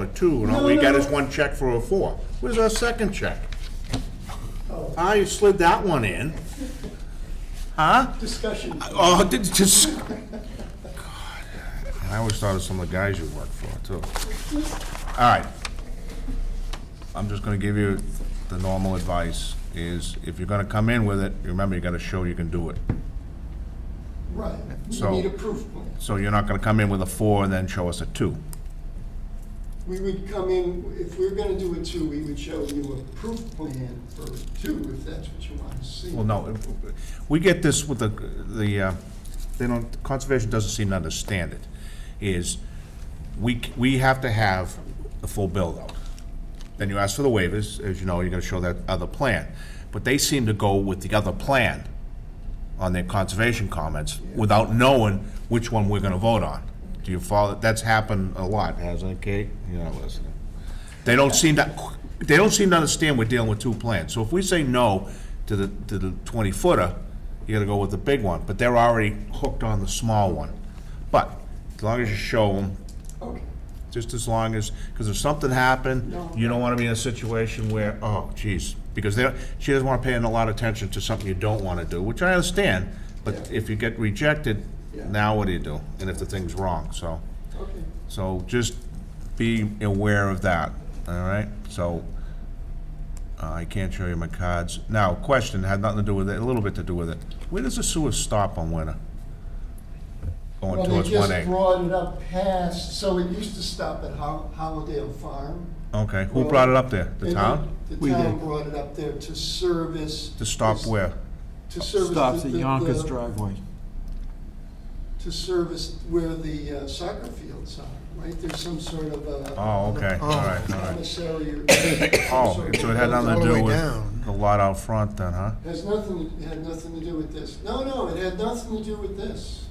or two, and all we got is one check for a four. Where's our second check? I slid that one in. Huh? Discussion. Oh, did, just, God, I always thought of some of the guys you work for, too. All right. I'm just gonna give you the normal advice, is if you're gonna come in with it, remember, you gotta show you can do it. Right. So- We need a proof plan. So you're not gonna come in with a four and then show us a two. We would come in, if we were gonna do a two, we would show you a proof plan for two, if that's what you want to see. Well, no, we get this with the, the, uh, they don't, conservation doesn't seem to understand it, is we, c- we have to have the full build-out. Then you ask for the waivers, as you know, you're gonna show that other plan. But they seem to go with the other plan on their conservation comments without knowing which one we're gonna vote on. Do you follow? That's happened a lot, hasn't it, Kate? You're not listening. They don't seem to, they don't seem to understand we're dealing with two plans. So if we say no to the, to the twenty footer, you gotta go with the big one, but they're already hooked on the small one. But as long as you show them, Okay. just as long as, because if something happened, No. you don't wanna be in a situation where, oh, geez, because they, she doesn't wanna pay a lot of attention to something you don't wanna do, which I understand, but Yeah. if you get rejected, Yeah. now what do you do? And if the thing's wrong, so. Okay. So just be aware of that, all right? So uh, I can't show you my cards. Now, question, had nothing to do with it, a little bit to do with it. Where does the sewer stop on Winter? Going Well, towards they one just A? brought it up past, so it used to stop at Ho- Howardale Farm. Okay, who brought it up there? The And town? The We town did. brought it up there to service. To stop this- where? To service. Stops the- at the- Yonkers the- driveway. To service where the uh, soccer fields are, right? There's some sort of a. Oh, okay, all right, all right. Commissary. or- Oh, some sort so of- it had nothing all to the do way with down. the lot out front then, huh? Has nothing, it had nothing to do with this. No, no, it had nothing to do with this.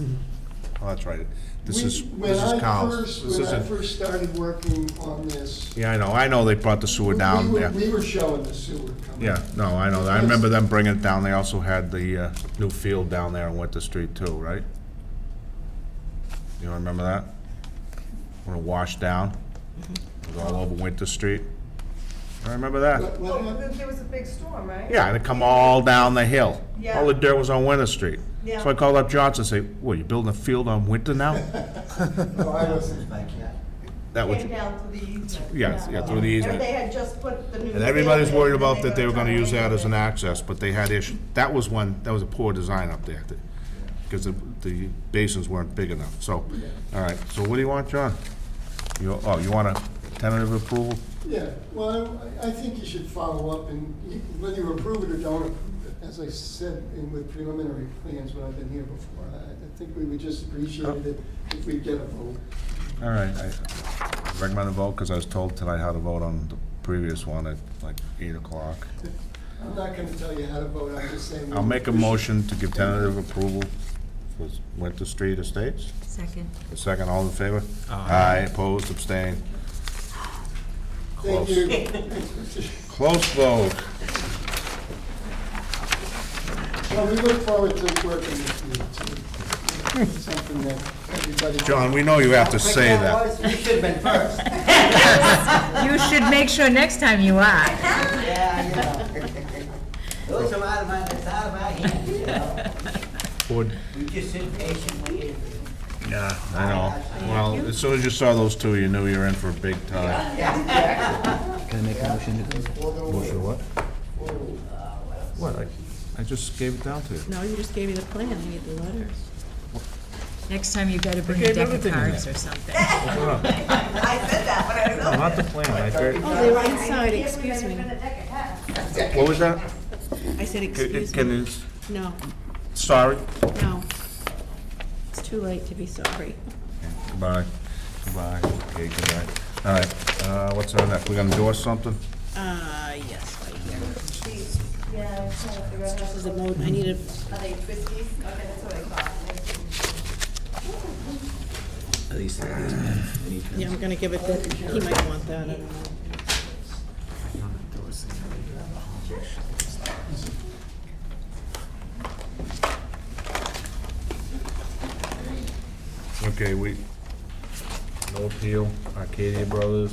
Oh, that's right. This We- is, when this I is Collins. first- This When I isn't, first started working on this. yeah, I know, I know they brought the sewer we down were- there. We were showing the sewer coming. Yeah, no, I know, that. I remember them bringing it down, they also had the uh, new field down there on Winter Street too, right? You remember that? When it washed down, Mm-hmm. it was all over Winter Street, I remember that. What- what Well, happened? there- there was a big storm, right? Yeah, and it come all down the hill, Yeah. all the dirt was on Winter Street. So Yeah. I called up Johnson, and say, what, you building a field on Winter now? No, I wasn't like that. That was, Came down through the easement. Yes, yeah, through the easement. And they had just put the new. and everybody's field in, worried and about that they were gonna try use that as an make access, but they had issue, that was one, that was a poor design up there, because the, the basins weren't big enough, so, all right, so what do you want, John? You, oh, you want a tentative approval? Yeah, well, I, I think you should follow up and you- whether you approve it or don't approve it. As I said in with preliminary plans when I've been here before, I, I think we would just appreciate it if we get a vote. All right, I recommend a vote, because I was told tonight how to vote on the previous one at like eight o'clock. I'm not gonna tell you how to vote, I'm just saying. we I'll make a should- motion to give tentative approval for Winter Street Estates. Second. A second, all in favor? Aye, opposed, abstained. Thank Close. you. Close vote. Well, we look forward to working with you, too. Something that everybody. John, we know you have to say that. Otherwise, we should have been first. You should make sure next time you are. Yeah, you know. Those are out of my, that's out of my hands, you know. Would- We just sit patiently and. Yeah, I know. Well, as soon as you saw those two, you knew you were in for a big time. Can I make a motion? to- Motion what? What, I, I just gave it down to you. No, you just gave me the plan, I need the letters. Next time you better bring Okay, a deck of everything in cards there. or something. it happen. I said that, but I don't know. Not the plan, I agree. Oh, they were I- I inside, can't excuse remember me. the deck it had. What was that? I said, Can, excuse can, me. No, sorry? no. It's too late to be sorry. Goodbye. Goodbye. Okay, goodbye. All right, uh, what's on that? We gonna endorse something? Uh, yes, right here. Yeah, I was trying to figure out how This is to- a mode, I need a, Are they twisties? Okay, that's what I thought. yeah, I'm gonna give it to, he might want that, I don't know. Okay, we, No appeal, Arcadia Brothers.